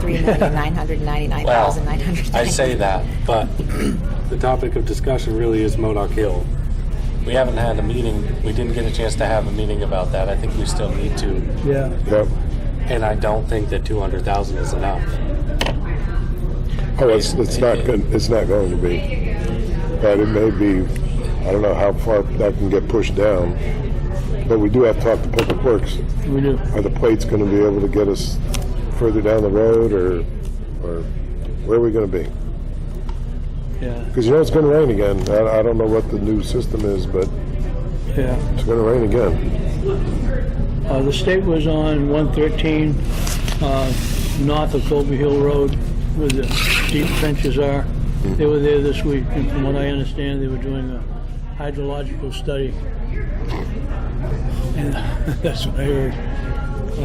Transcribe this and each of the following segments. three million nine hundred ninety-nine thousand nine hundred. I say that, but the topic of discussion really is Modoc Hill. We haven't had a meeting, we didn't get a chance to have a meeting about that. I think we still need to. Yeah. Yep. And I don't think that 200,000 is enough. Oh, it's, it's not good. It's not going to be. But it may be. I don't know how far that can get pushed down. But we do have to talk to Public Works. We do. Are the plates going to be able to get us further down the road, or or where are we going to be? Yeah. Because you know it's going to rain again. I, I don't know what the new system is, but Yeah. it's going to rain again. Uh, the state was on 113 uh, north of Colby Hill Road where the deep trenches are. They were there this week, and from what I understand, they were doing a hydrological study. And that's what I heard.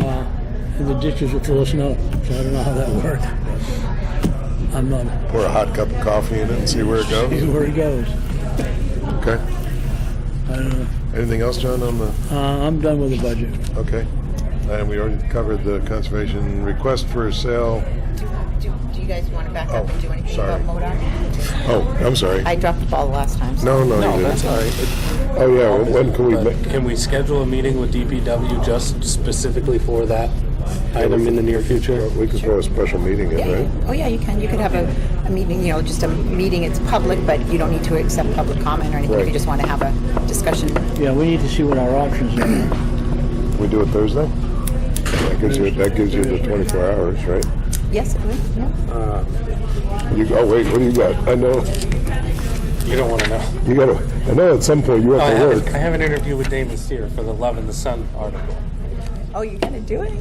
Uh, and the ditches were full of snow, so I don't know how that worked. I'm not Pour a hot cup of coffee in it and see where it sure goes. where it goes. Okay. I don't know. Anything else, John? On the Uh, I'm done with the budget. okay. And we already covered the conservation request for sale. Do, do you guys want to back Oh, sorry. MODOC? Oh, I'm sorry. I dropped the ball last time. so- No, no, No, you that's didn't. all right. Oh, yeah, well, when can we, But ma- Can we schedule a meeting with DPW just specifically for that item in the near future? we could throw a special meeting in, Yeah, right? oh yeah, you can, you could have a, a meeting, you know, just a meeting, it's public, but you don't need to accept public comment or anything, if you Right. just want to have a discussion. Yeah, we need to see what our options are. We do it Thursday? That gives you, that gives you the twenty-four hours, right? Yes, it would, yeah. You, oh, wait, what do you got? I know, You don't want to know. you gotta, I know at some point you I have to have, I work. have an interview with Damon Steer for the Love and the Sun article. Oh, you're gonna do it?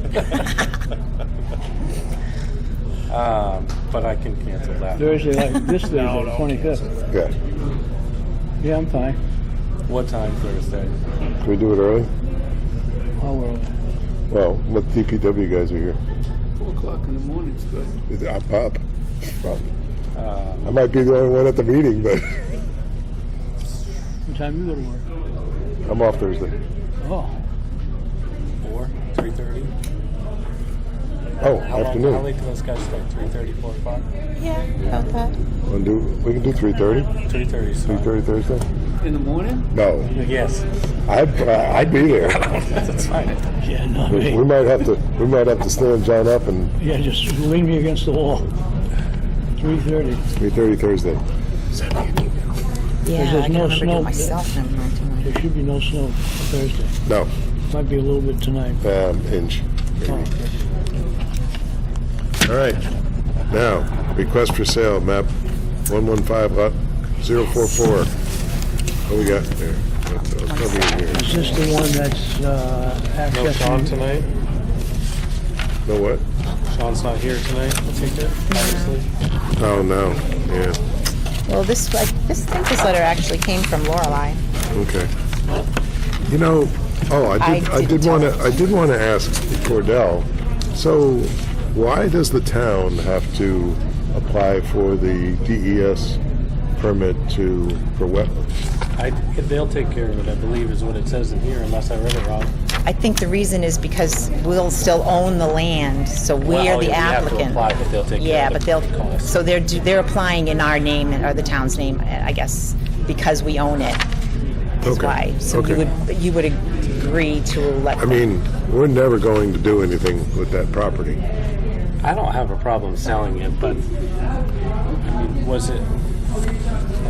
Um, but I can cancel that. Thursday, like this Thursday, twenty-fifth. Yeah. Yeah, I'm fine. What time Thursday? Can we do it early? I'll work. Well, what DPW guys are here? Four o'clock in the morning's good. Uh, Is it- I'm up. Well, I might be the only one at the meeting, but What time you go to work? I'm off Thursday. Oh, Four? Three thirty? Oh, How long, how afternoon. late do those guys start? Three thirty, four o'clock? Yeah, about that. Wanna do, we can do three-thirty? Three thirty, Three-thirty Thursday? In the morning? No, Yes. I'd, uh, I'd be there. That's fine. yeah, no, We me. might have to, we might have to stand John up and Yeah, just lean me against the wall. Three thirty. Three thirty Thursday. Yeah, there's I can no remember doing snow. myself never mind tonight. There should be no snow Thursday. No, Might be a little bit tonight. Oh. um, inch. All right. Now, request for sale, map one one five lot zero four four. What we got there? That's- that's probably in here. Is this the one that's uh, No Sean accessing? tonight? No what? Sean's not here tonight, I think it, obviously. Oh, no, yeah, Well, this, like, this, I think this letter actually came from Lorelei. okay. You know, oh, I did, I I did didn't wanna, tell. I did wanna ask Cordell, so why does the town have to apply for the DES permit to, for wetlands? I, they'll take care of it, I believe is what it says in here, unless I read it wrong. I think the reason is because we'll still own the land, so we're Well, oh, the we have to applicant. apply, but they'll take care Yeah, of but the they'll, cost. so they're, do- they're applying in our name, and or the town's name, I guess, because we own it. That's Okay, why. So okay. you would, you would agree to let I mean, we're never going to do anything with that property. I don't have a problem selling it, but I mean, was it? I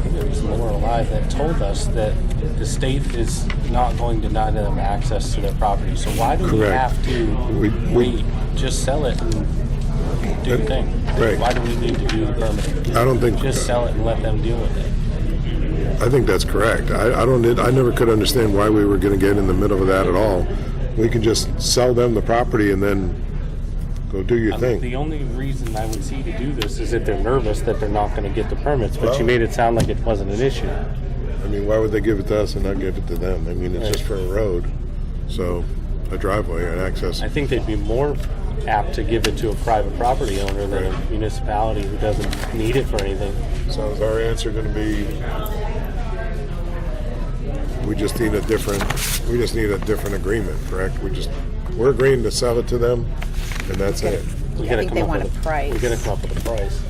think it was Lorelei that told us that the state is not going to deny them access to their property. So why do we Correct. have to We- we- wait? Just sell it and do your thing. Right. Why do we need to do the permit? I don't think- Just sell it and let them deal with it. I think that's correct. I, I don't, I never could understand why we were going to get in the middle of that at all. We can just sell them the property and then go do your thing. Um, The only reason I would see to do this is if they're nervous that they're not going to get the permits. But Well- you made it sound like it wasn't an issue. I mean, why would they give it to us and not give it to them? I mean, it's just for a road, so a driveway and access. I think they'd be more apt to give it to a private property owner than a municipality who doesn't need it for anything. So is our answer going to be, we just need a different, we just need a different agreement, correct? We just, we're agreeing to sell it to them and that's it. We Yeah, I gotta think come they up want with a price. We gotta come up with a price.